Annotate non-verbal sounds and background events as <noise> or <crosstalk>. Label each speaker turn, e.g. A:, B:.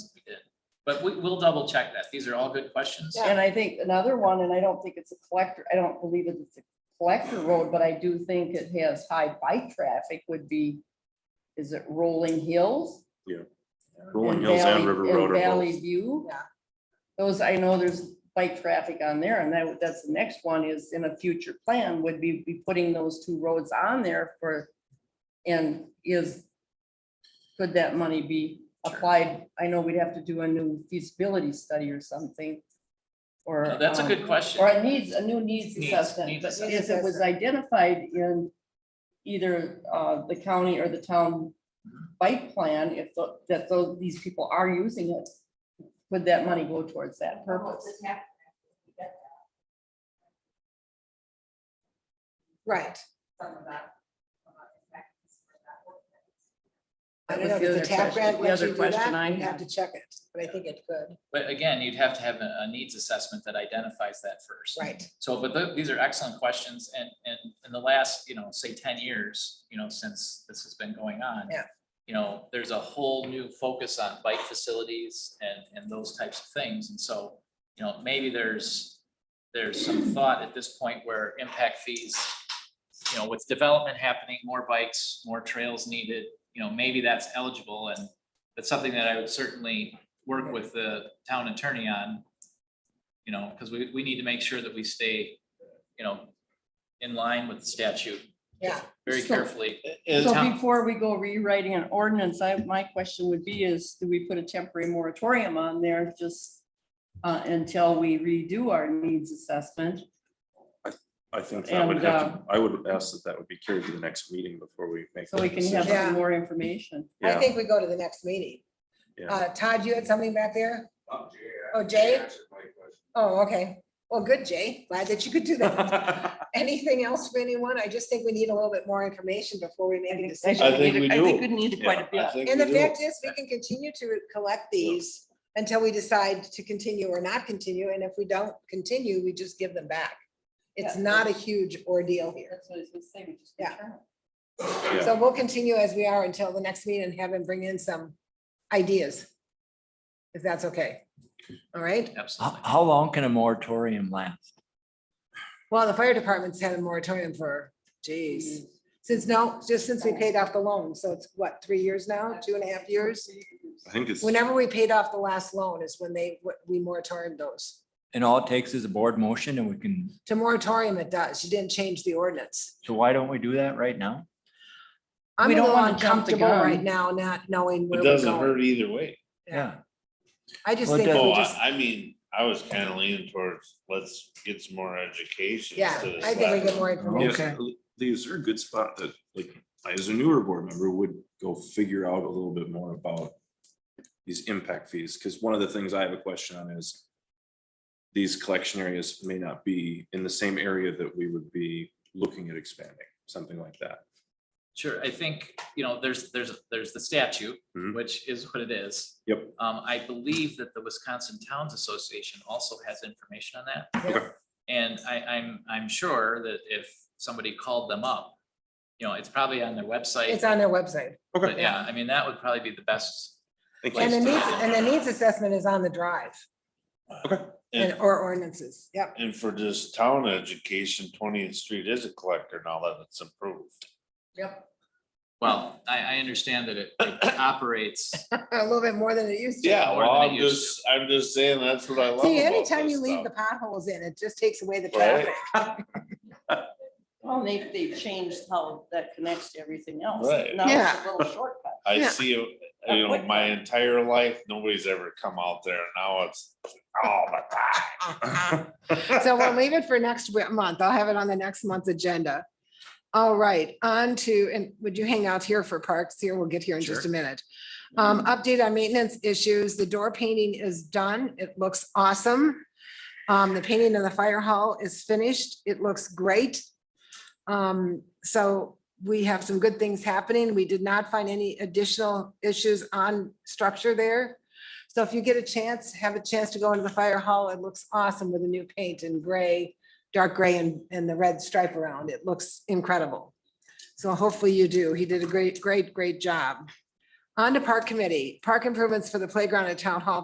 A: But we, we'll double check that. These are all good questions.
B: And I think another one, and I don't think it's a collector, I don't believe that it's a collector road, but I do think it has high bike traffic would be, is it Rolling Hills?
C: Rolling Hills and
B: Valley-
C: River Road are
B: Valley
C: both.
B: View.
D: Yeah.
B: Those, I know there's bike traffic on there, and that, that's the next one is in a future plan would be, be putting those two roads on there for, and is, could that money be
A: Sure.
B: applied? I know we'd have to do a new feasibility study or something, or.
A: No, That's a
B: um,
A: good
B: or
A: question.
B: a needs, a new needs
A: Needs-
B: assessment,
A: needs
B: but
A: assessment.
B: if it was identified in either uh the county or the town bike plan, if tho- that those, these people are using it, would that money go towards that purpose?
D: Right. I
B: That
D: don't know,
B: was the
D: does the
B: other
D: TAP
B: question-
D: grant
B: the
D: let
B: other
D: you do
B: question I
D: that? You'd have
B: had.
D: to check it, but I think it could,
A: But again, you'd have to have a, a needs assessment that identifies that first.
D: right.
A: So, but tho- these are excellent questions and, and in the last, you know, say ten years, you know, since this has been going on.
D: Yeah.
A: You know, there's a whole new focus on bike facilities and, and those types of things. And so, you know, maybe there's, there's some thought at this point where impact fees, you know, with development happening, more bikes, more trails needed, you know, maybe that's eligible and that's something that I would certainly work with the town attorney on. You know, because we, we need to make sure that we stay, you know, in line with the statute
D: Yeah,
A: very
B: So- eh,
A: carefully.
B: So
A: Town-
B: before we go rewriting an ordinance, I, my question would be is, do we put a temporary moratorium on there just uh until we redo our needs assessment?
C: I think that would
B: And, uh,
C: have, to- I would ask that that would be carried to the next meeting before we make.
B: So we
C: that
B: can have
C: decision.
D: Yeah.
B: some more information.
D: I
C: Yeah.
D: think we go to the next meeting.
C: Yeah.
D: Uh, Todd, you had something back there?
E: Oh, Jay.
D: Oh, Jay?
E: Answered my question.
D: Oh, okay. Well, good, Jay. Glad that you could do
B: <laughs>
D: that.
B: uh,
C: <laughs>
D: Anything else for anyone? I just think we need a little bit more information before we make a decision.
F: I think we
B: I think we
F: do.
B: need quite a bit.
F: I think
D: And
F: we
D: the
F: do.
D: fact is, we can continue to collect these until we decide to continue or not continue. And if we don't continue, we just give them back. It's
B: Yeah.
D: not a huge ordeal here.
B: That's what I was gonna say, we just.
D: Yeah.
C: Yeah.
D: So we'll continue as we are until the next meeting and have him bring in some ideas. If that's okay. All right.
A: Absolutely.
G: How, how long can a moratorium last?
D: Well, the fire department's had a moratorium for, geez, since no, just since we paid off the loan. So it's what, three years now, two and a half years?
C: I think it's,
D: Whenever we paid off the last loan is when they, we moratorium those.
G: And all it takes is a board motion and we can,
D: To moratorium it does. You didn't change the ordinance.
G: so why don't we do that right now?
D: I'm
B: We
D: a
B: don't
D: little
B: wanna jump the
D: uncomfortable
B: gun.
D: right now, not knowing where
F: It
D: we're
F: doesn't
D: going.
F: hurt either way.
G: Yeah,
D: I just
G: Well, it
D: think
G: doesn't-
D: we
F: Oh,
D: just,
F: I, I mean, I was kind of leaning towards, let's get some more education.
D: yeah,
F: instead of
D: I think we
F: slapping.
D: get more information.
C: yeah, these are a good spot that, like, I as a newer board member would go figure out a little bit more about these impact fees, because one of the things I have a question on is these collection areas may not be in the same area that we would be looking at expanding, something like that.
A: Sure, I think, you know, there's, there's, there's the statute,
C: Mhm.
A: which is what it is.
C: Yep.
A: Um, I believe that the Wisconsin Towns Association also has information on that.
D: Yeah.
C: Okay.
A: And I, I'm, I'm sure that if somebody called them up, you know, it's probably on their
D: It's
A: website.
D: on their website.
A: But yeah, I mean, that would probably be the best.
C: Thank
D: And
C: you.
D: the
A: place to-
D: needs, and the needs assessment is on the drive and
F: And,
D: or ordinances. Yep.
F: and for just town education, Twentieth Street is a collector now that it's approved.
D: Yep.
A: Well, I, I understand that it
B: <coughs>
A: it operates.
D: A little bit more than it used to.
F: Yeah,
A: more
F: well,
A: than it
F: I'm
A: used
F: just, I'm just saying, that's what I love
D: See,
F: about
D: anytime
F: this
D: you leave the
F: stuff.
D: potholes in, it just takes away the
F: Right?
D: traffic.
B: Well, they, they've changed how that connects to everything else.
F: Right.
B: Now it's
D: Yeah.
B: a little shortcut.
F: I
D: Yeah.
F: see, it, you know, my entire life, nobody's ever come out there. Now it's
B: Oh,
F: all the time.
C: <laughs>
D: So we'll leave it for next wi- month. I'll have it on the next month's agenda. All right, on to, and would you hang out here for parks here? We'll get here in just a
A: Sure.
D: minute. Um, update on maintenance issues. The door painting is done. It looks awesome. Um, the painting in the fire hall is finished. It looks great. Um, so we have some good things happening. We did not find any additional issues on structure there. So if you get a chance, have a chance to go into the fire hall, it looks awesome with the new paint and gray, dark gray and, and the red stripe around. It looks incredible. So hopefully you do. He did a great, great, great job. On to park committee, park improvements for the playground at town hall